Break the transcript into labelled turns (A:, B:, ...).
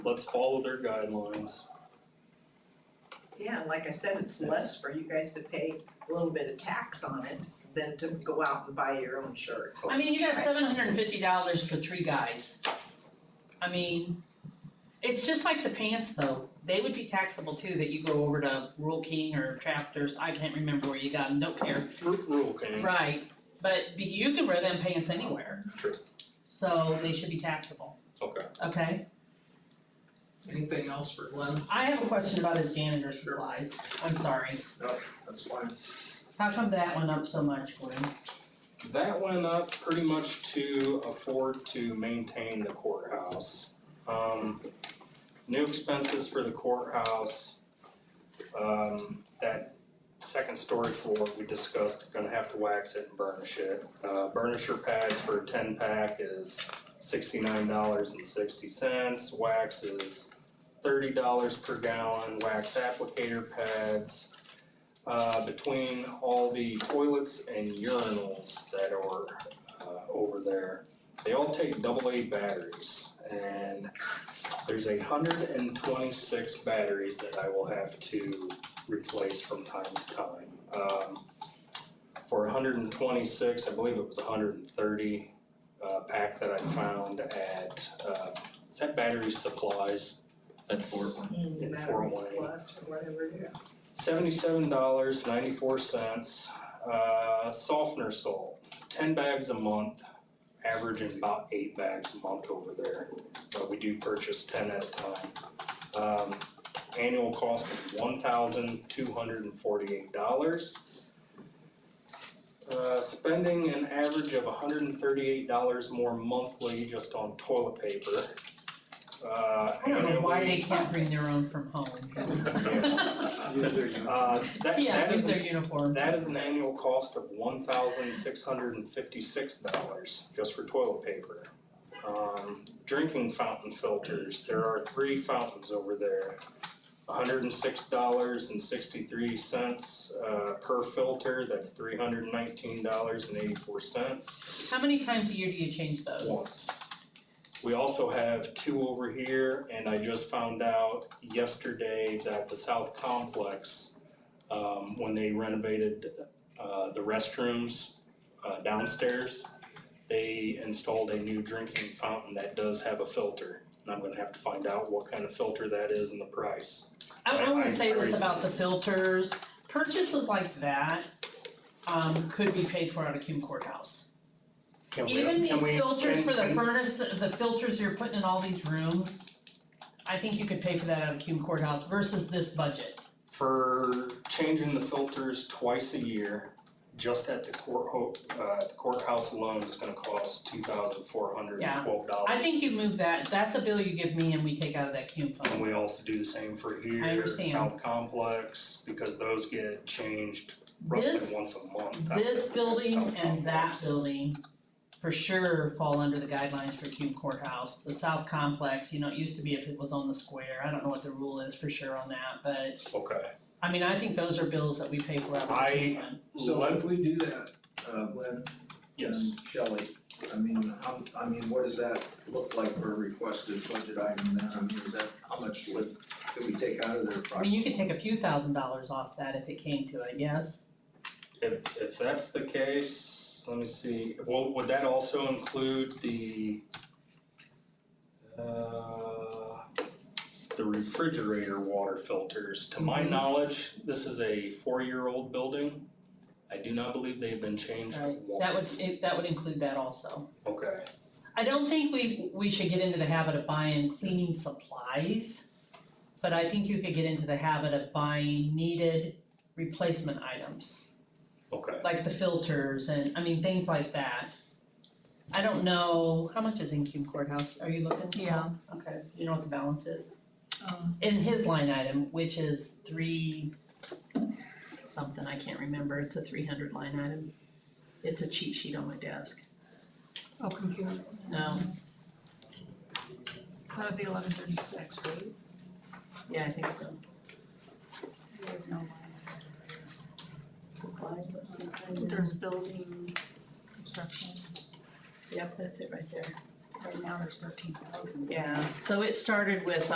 A: let's follow their guidelines.
B: Yeah, and like I said, it's less for you guys to pay a little bit of tax on it than to go out and buy your own shirts.
C: I mean, you got seven hundred and fifty dollars for three guys. I mean, it's just like the pants though, they would be taxable too, that you go over to Rule King or Chapters, I can't remember where you got them, don't care.
A: R- Rule king,
C: Right, but but you can wear them pants anywhere.
A: True.
C: So they should be taxable,
A: okay.
C: okay?
D: Anything else for Glenn?
C: I have a question about his janitor
D: Sure.
C: supplies, I'm sorry,
D: No, that's fine.
C: how come that went up so much, Gwen?
A: That went up pretty much to afford to maintain the courthouse. Um, new expenses for the courthouse. Um, that second story floor we discussed, gonna have to wax it and burnish it. Uh, burnisher pads for a ten pack is sixty-nine dollars and sixty cents, wax is thirty dollars per gallon, wax applicator pads uh, between all the toilets and urinals that are uh, over there. They all take double A batteries, and there's a hundred and twenty-six batteries that I will have to replace from time to time. Um, for hundred and twenty-six, I believe it was hundred and thirty uh, pack that I found at uh, is that battery supplies? That's
B: Mm,
A: In
B: Batteries
A: four-way.
B: plus or whatever it is.
A: Seventy-seven dollars, ninety-four cents, uh, softener salt, ten bags a month, averaging about eight bags a month over there, but we do purchase ten at a time. Um, annual cost of one thousand two hundred and forty-eight dollars. Uh, spending an average of hundred and thirty-eight dollars more monthly just on toilet paper. Uh,
C: I don't know why
A: annually-
C: they can't bring their own from home.
E: Oh,
A: Uh, that,
C: Yeah,
A: that
C: use
A: is a
C: their uniform.
A: That is an annual cost of one thousand six hundred and fifty-six dollars just for toilet paper. Um, drinking fountain filters, there are three fountains over there. hundred and six dollars and sixty-three cents, uh, per filter, that's three hundred and nineteen dollars and eighty-four cents
C: How many times a year do you change those?
A: once. We also have two over here, and I just found out yesterday that the South Complex, um, when they renovated, uh, the restrooms, uh, downstairs, they installed a new drinking fountain that does have a filter. And I'm gonna have to find out what kind of filter that is and the price.
C: I I
A: I- I-
C: wanna say
A: I-
C: this about the filters, purchases like that um could be paid for out of Cume courthouse.
A: Can we,
C: Even
A: can
C: these
A: we-
C: filters
A: can-
C: for the
A: can-
C: furnace, the the filters you're putting in all these rooms, I think you could pay for that out of Cume courthouse versus this budget.
A: for changing the filters twice a year, just at the court, uh, the courthouse alone is gonna cost two thousand four hundred and twelve dollars.
C: I think you move that, that's a bill you give me and we take out of that Cume fund.
A: And we also do the same for
C: I
A: here,
C: understand.
A: South Complex, because those get changed roughly
C: This-
A: once a month. at
C: This
A: the
C: building
A: South
C: and that
A: Complex.
C: building for sure fall under the guidelines for Cume Courthouse. The south complex, you know, it used to be if it was on the square, I don't know what the rule is for sure on that, but
A: Okay,
C: I mean, I think those are bills that we pay for out of the Cume fund.
D: So if we do that, uh, Glenn
A: yes,
D: and Shelley, I mean, how, I mean, what does that look like for a requested budget item then? I mean, is that, how much would, could we take out
C: I
D: of there
C: mean,
D: approximately?
C: you could take a few thousand dollars off that if it came to it, yes?
A: if, if that's the case, let me see, well, would that also include the uh, the refrigerator water filters, to my
C: Mhm.
A: knowledge, this is a four-year-old building. I do not believe they've been changed
C: Right.
A: once.
C: That would, it- that would include that also.
A: Okay.
C: I don't think we, we should get into the habit of buying cleaning supplies, but I think you could get into the habit of buying needed replacement items.
A: Okay,
C: like the filters and, I mean, things like that. I don't know, how much is in Cume Courthouse, are you looking?
E: Yeah.
C: Okay, you know what the balance is?
E: Um,
C: In his line item, which is three something, I can't remember, it's a three hundred line item. It's a cheat sheet on my desk, Um,
E: oh, computer,
C: no,
E: that'd be eleven thirty-six, right?
C: yeah, I think so.
E: There is no line. Supplies. There's building construction,
C: Yep, that's it right there.
E: right now there's thirteen thousand.
C: Yeah, so it started with